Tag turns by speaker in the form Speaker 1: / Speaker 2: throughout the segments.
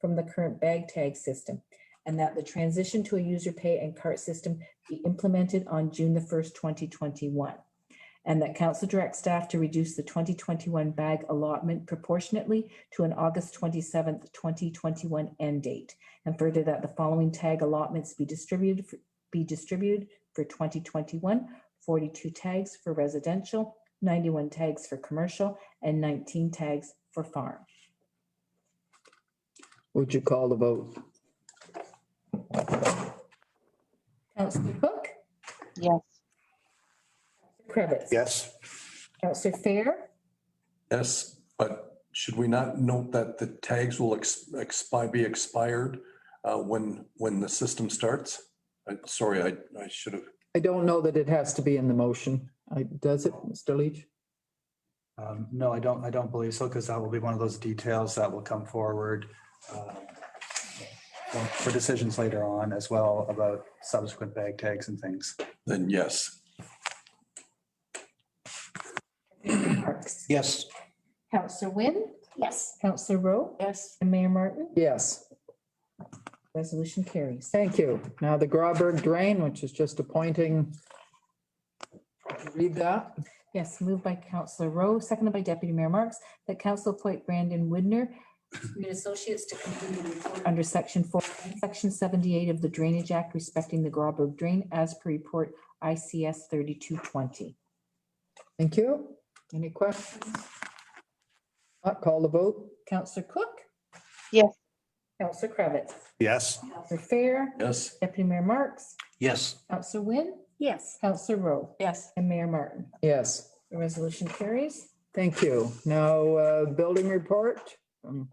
Speaker 1: from the current bag tag system, and that the transition to a user pay and cart system be implemented on June the 1st, 2021. And that council direct staff to reduce the 2021 bag allotment proportionately to an August 27th, 2021 end date. And further that the following tag allotments be distributed, for- be distributed for 2021, 42 tags for residential, 91 tags for commercial, and 19 tags for farm.
Speaker 2: Would you call the vote?
Speaker 1: Counselor Cook?
Speaker 3: Yes.
Speaker 1: Cravitz?
Speaker 4: Yes.
Speaker 1: Counselor Fair?
Speaker 5: Yes, but should we not note that the tags will expire, be expired uh, when, when the system starts? I'm Sorry, I, I should have,
Speaker 2: I don't know that it has to be in the motion. I- Does it, Mr. Leach?
Speaker 6: Um, No, I don't, I don't believe so, because that will be one of those details that will come forward uh, for decisions later on as well about subsequent bag tags and things.
Speaker 5: then yes.
Speaker 1: Marks?
Speaker 4: Yes.
Speaker 1: Counselor Wynn?
Speaker 3: Yes.
Speaker 1: Counselor Rowe?
Speaker 3: Yes.
Speaker 1: And Mayor Martin?
Speaker 2: Yes,
Speaker 1: Resolution carries.
Speaker 2: thank you. Now the Grauberg drain, which is just appointing. Read that.
Speaker 1: Yes, moved by Counselor Rowe, seconded by Deputy Mayor Marks, that council appoint Brandon Widner, Green Associates to complete the report under section four, section seventy-eight of the Drainage Act respecting the Grauberg Drain as per report ICS thirty-two twenty.
Speaker 2: Thank you. Any questions? Not call the vote?
Speaker 1: Counselor Cook?
Speaker 3: Yes.
Speaker 1: Counselor Cravitz?
Speaker 4: Yes.
Speaker 1: Counselor Fair?
Speaker 5: Yes,
Speaker 1: Deputy Mayor Marks?
Speaker 4: Yes.
Speaker 1: Counselor Wynn?
Speaker 3: Yes.
Speaker 1: Counselor Rowe?
Speaker 3: Yes.
Speaker 1: And Mayor Martin.
Speaker 2: Yes,
Speaker 1: The resolution carries.
Speaker 2: thank you. Now, uh, building report. from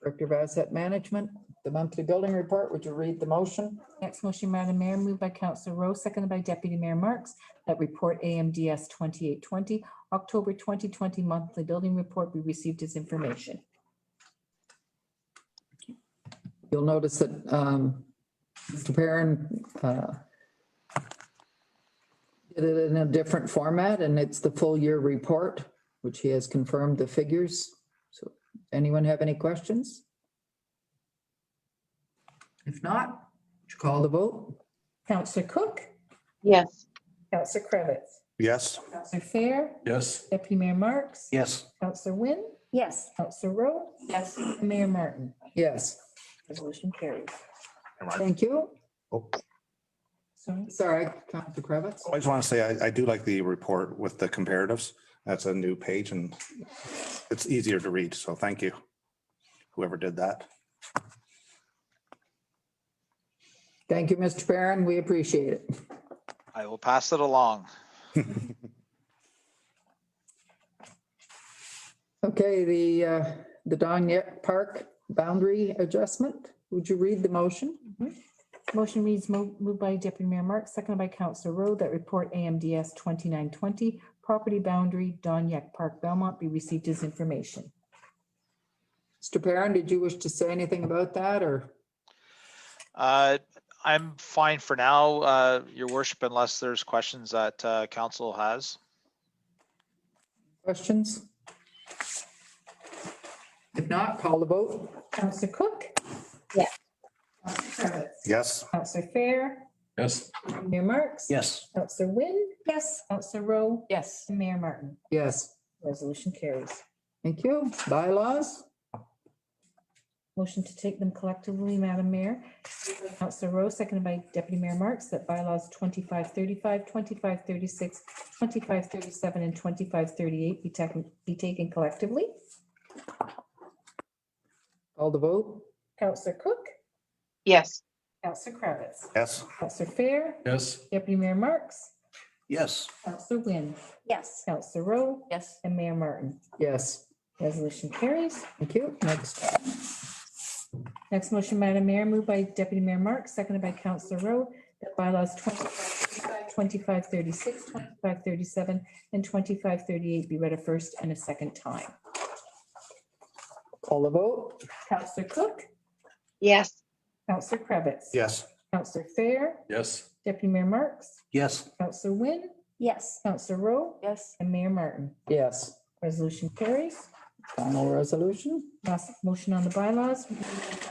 Speaker 2: Director of Asset Management, the monthly building report. Would you read the motion?
Speaker 1: Next motion, Madam Mayor, moved by Councillor Rowe, seconded by Deputy Mayor Marks, that report AMDS 2820, October 2020 monthly building report be received as information.
Speaker 2: You'll notice that um, Mr. Perrin uh, did it in a different format, and it's the full year report, which he has confirmed the figures. So anyone have any questions? If not, would you call the vote?
Speaker 1: Councillor Cook,
Speaker 3: Yes.
Speaker 1: Councillor Cravitz,
Speaker 4: Yes.
Speaker 1: Councillor Fair,
Speaker 5: yes,
Speaker 1: Deputy Mayor Marks,
Speaker 4: Yes.
Speaker 1: Councillor Wynn,
Speaker 3: Yes.
Speaker 1: Councillor Rowe,
Speaker 3: Yes.
Speaker 1: and Mayor Martin.
Speaker 2: Yes,
Speaker 1: Resolution carries.
Speaker 2: thank you.
Speaker 1: Sorry.
Speaker 2: Sorry, Dr. Kravitz.
Speaker 4: I just want to say, I, I do like the report with the comparatives. That's a new page and it's easier to read. So thank you. Whoever did that.
Speaker 2: Thank you, Mr. Perrin. We appreciate it.
Speaker 7: I will pass it along.
Speaker 2: Okay, the, uh, the Donyet Park boundary adjustment. Would you read the motion?
Speaker 1: Motion reads mo- moved by Deputy Mayor Marks, seconded by Councillor Rowe, that report AMDS 2920, property boundary Donyake Park, Belmont be received as information.
Speaker 2: Mr. Perrin, did you wish to say anything about that or?
Speaker 7: Uh, I'm fine for now, uh, your worship, unless there's questions that, uh, council has.
Speaker 2: Questions? If not, call the vote.
Speaker 1: Counselor Cook?
Speaker 3: Yeah.
Speaker 1: Counselor Cravitz?
Speaker 4: Yes.
Speaker 1: Counselor Fair?
Speaker 5: yes,
Speaker 1: Mayor Marks?
Speaker 4: Yes.
Speaker 1: Counselor Wynn? Yes. Counselor Rowe?
Speaker 3: Yes.
Speaker 1: And Mayor Martin.
Speaker 2: Yes,
Speaker 1: Resolution carries.
Speaker 2: thank you. Bylaws?
Speaker 1: Motion to take them collectively, Madam Mayor. Counselor Rowe, seconded by Deputy Mayor Marks, that bylaws 2535, 2536, 2537, and 2538 be taken, be taken collectively.
Speaker 2: Call the vote.
Speaker 1: Counselor Cook?
Speaker 3: Yes.
Speaker 1: Counselor Kravitz,
Speaker 4: Yes.
Speaker 1: Counselor Fair?
Speaker 5: yes.
Speaker 1: Deputy Mayor Marks?
Speaker 4: Yes.
Speaker 1: Counselor Wynn?
Speaker 3: Yes.
Speaker 1: Counselor Rowe?
Speaker 3: Yes.
Speaker 1: And Mayor Martin.
Speaker 2: Yes,
Speaker 1: Resolution carries.
Speaker 2: thank you. Next,
Speaker 1: Next motion, Madam Mayor, moved by Deputy Mayor Marks, seconded by Councillor Rowe, that bylaws 2535, 2536, 2537, and 2538 be read a first and a second time.
Speaker 2: call the vote.
Speaker 1: Councillor Cook,
Speaker 3: Yes.
Speaker 1: Councillor Krebitz,
Speaker 4: Yes.
Speaker 1: Councillor Fair,
Speaker 5: Yes,
Speaker 1: Deputy Mayor Marks,
Speaker 4: Yes.
Speaker 1: Councillor Wynn,
Speaker 3: Yes.
Speaker 1: Councillor Rowe,
Speaker 3: Yes.
Speaker 1: and Mayor Martin.
Speaker 2: Yes,
Speaker 1: Resolution carries.
Speaker 2: final resolution.
Speaker 1: Last motion on the bylaws,